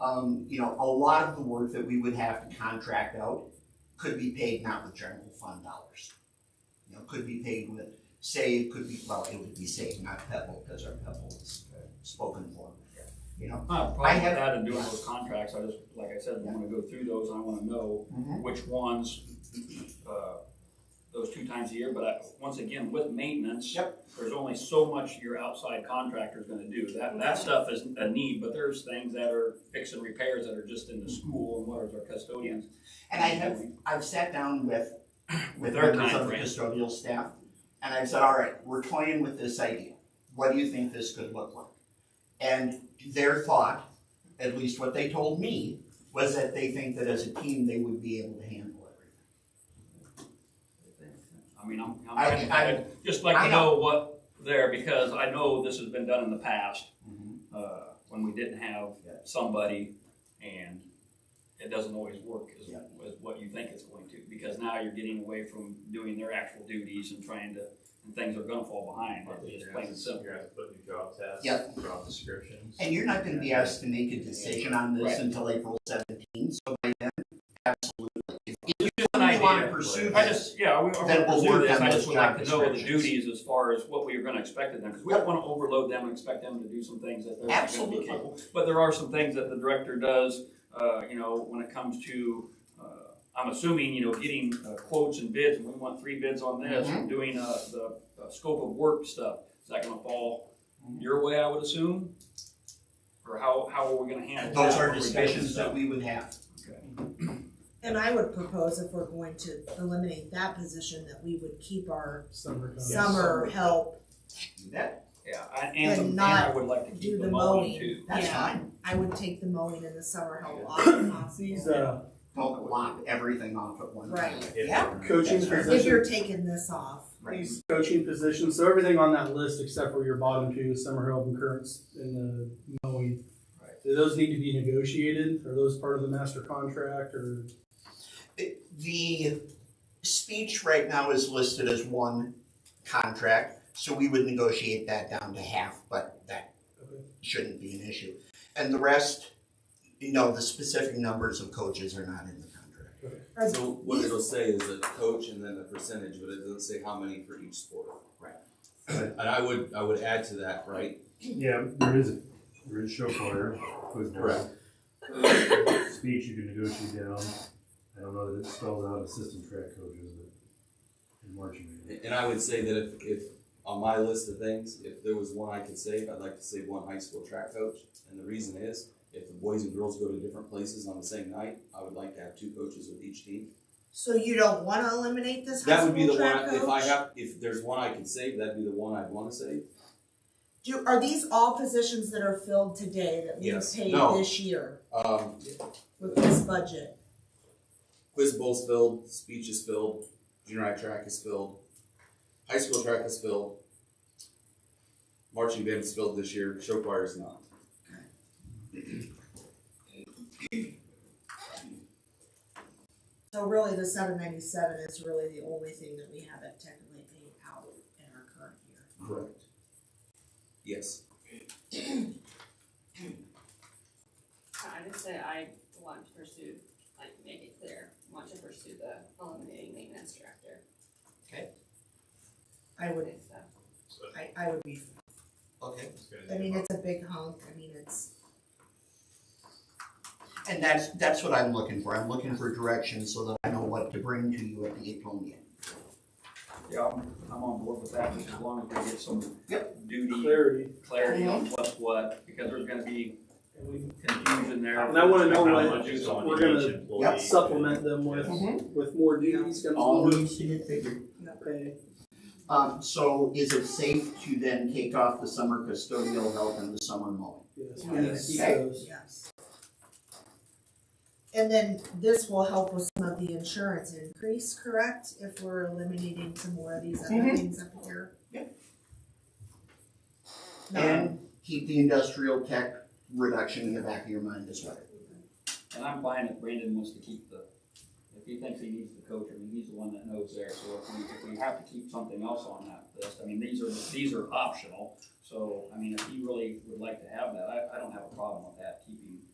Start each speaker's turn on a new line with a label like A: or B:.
A: um, you know, a lot of the work that we would have to contract out could be paid not with general fund dollars. You know, could be paid with, say, it could be, well, it would be saved, not Pebble, because our Pebble is uh, spoken for. You know,
B: I have
A: I have-
B: a problem with that and doing those contracts, I just, like I said, I wanna go through those, and I wanna know which ones, uh, those two times a year, but I, once again, with maintenance. There's only so much your outside contractor's gonna do, that, that stuff is a need, but there's things that are fix and repairs that are just in the school and what is our custodians.
A: Mm-hmm. and I have, I've sat down with, with
B: Their
A: members of the
B: timeframe.
A: custodial staff, and I've said, all right, we're toying with this idea. What do you think this could look like? And their thought, at least what they told me, was that they think that as a team, they would be able to handle everything.
B: I mean, I'm, I'm,
A: I-
B: kinda-
A: I-
B: I'd just like
A: I
B: to know what there, because I know this has been done in the past,
A: Mhm.
B: uh, when we didn't have
A: Yeah.
B: somebody and it doesn't always work as,
A: Yeah.
B: as what you think it's going to, because now you're getting away from doing their actual duties and trying to, and things are gonna fall behind, it's just plain and simple.
C: You're gonna have to put new job tasks.
A: Yep.
C: Job descriptions.
A: And you're not gonna be asked to make a decision on this
B: Right.
A: until April seventeenth, so by then, absolutely. If you
B: an
A: really wanna
B: idea.
A: pursue
B: I
A: this,
B: just, yeah, we,
A: Then
B: I
A: we'll
B: will
A: work
B: do this,
A: on
B: I
A: those
B: just would like to
A: job
B: know the
A: descriptions.
B: duties as far as what we are gonna expect of them, because we don't wanna overload them and expect them to do some things that they're not gonna be
A: Absolutely.
B: capable. But there are some things that the director does, uh, you know, when it comes to, uh, I'm assuming, you know, getting uh, quotes and bids, and we want three bids on
A: Mm-hmm.
B: this, and doing, uh, the, uh scope of work stuff, is that gonna fall
A: Mm-hmm.
B: your way, I would assume? Or how, how are we gonna handle that?
A: those are
B: when we're doing
A: discussions
B: stuff?
A: that we would have.
D: And I would propose if we're going to eliminate that position, that we would keep our
E: Summer. comes.
D: summer help.
A: Do that,
B: Yeah, I- and, some-
D: And
B: and
D: not
B: I would like to
D: do
B: keep
D: the
B: them all in
D: mowing.
B: too.
A: that's
D: Yeah.
A: fine.
D: I would take the mowing and the summer help off if
E: These,
D: possible.
E: uh,
A: Don't lop everything off at one time.
D: Right.
A: Yeah,
E: coaching
A: That's right.
D: If
E: positions,
D: you're taking this off,
A: right.
E: these coaching positions, so everything on that list except for your bottom two, summer help and currents and the mowing.
B: Right.
E: Do those need to be negotiated? Are those part of the master contract or?
A: The speech right now is listed as one contract, so we would negotiate that down to half, but that
E: Okay.
A: shouldn't be an issue. And the rest, you know, the specific numbers of coaches are not in the contract.
D: or
F: So what it'll say is a coach and then a percentage, but it doesn't say how many for each sport.
A: Right.
F: And I would, I would add to that, right?
G: Yeah, there is, a- there is show choir, who's
F: Correct.
G: Speech you can negotiate down, I don't know that it spells out assistant track coaches, but in marching. band.
F: And I would say that if, if, on my list of things, if there was one I could save, I'd like to save one high school track coach. And the reason is, if the boys and girls go to different places on the same night, I would like to have two coaches with each team.
D: so you don't wanna eliminate this high
F: That would be the
D: school
F: one,
D: track
F: I- if I
D: coach?
F: have, if there's one I can save, that'd be the one I'd wanna save.
D: Do, are these all positions that are filled today that we
F: Yes.
D: paid
F: No.
D: this year
F: Um,
D: with this budget?
F: quiz bowl's filled, speech is filled, junior high track is filled, high school track is filled, marching band is filled this year, show choir is not.
D: So really, the seven ninety-seven is really the only thing that we haven't technically paid out in our current year.
F: Correct. Yes.
H: I would say I want to pursue, like, make it clear, want to pursue the eliminating maintenance director.
D: I would,
H: So,
D: I, I would be
A: Okay.
C: It's gonna
D: I
C: be
D: mean,
C: about-
D: it's a big hunk, I mean, it's,
A: And that's, that's what I'm looking for. I'm looking for direction so that I know what to bring to you at the April meeting.
B: Yeah, I'm, I'm on board with that, just as long as we get some duty
E: Clarity.
B: clarity on what's what, because there's gonna be
E: And we
B: confusion there.
E: And I wanna know
C: How
E: what-
C: much is on
E: we're gonna-
C: each employee.
E: supplement them with,
A: Mhm.
E: with more duties, comes
A: All
E: more
A: needs to get figured.
E: pay.
A: Um, so is it safe to then take off the summer custodial help and the summer mowing?
E: Yes,
H: Yeah.
E: we need to keep
A: Okay.
E: those.
D: yes. And then this will help with some of the insurance increase, correct, if we're eliminating some more of these other
A: Mhm.
D: things up here?
A: Yep.
D: No.
A: And keep the industrial tech reduction in the back of your mind as well.
B: And I'm fine if Brandon wants to keep the, if he thinks he needs the coach, I mean, he's the one that knows there, so if we, if we have to keep something else on that list, I mean, these are, these are optional. So, I mean, if he really would like to have that, I, I don't have a problem with that, keeping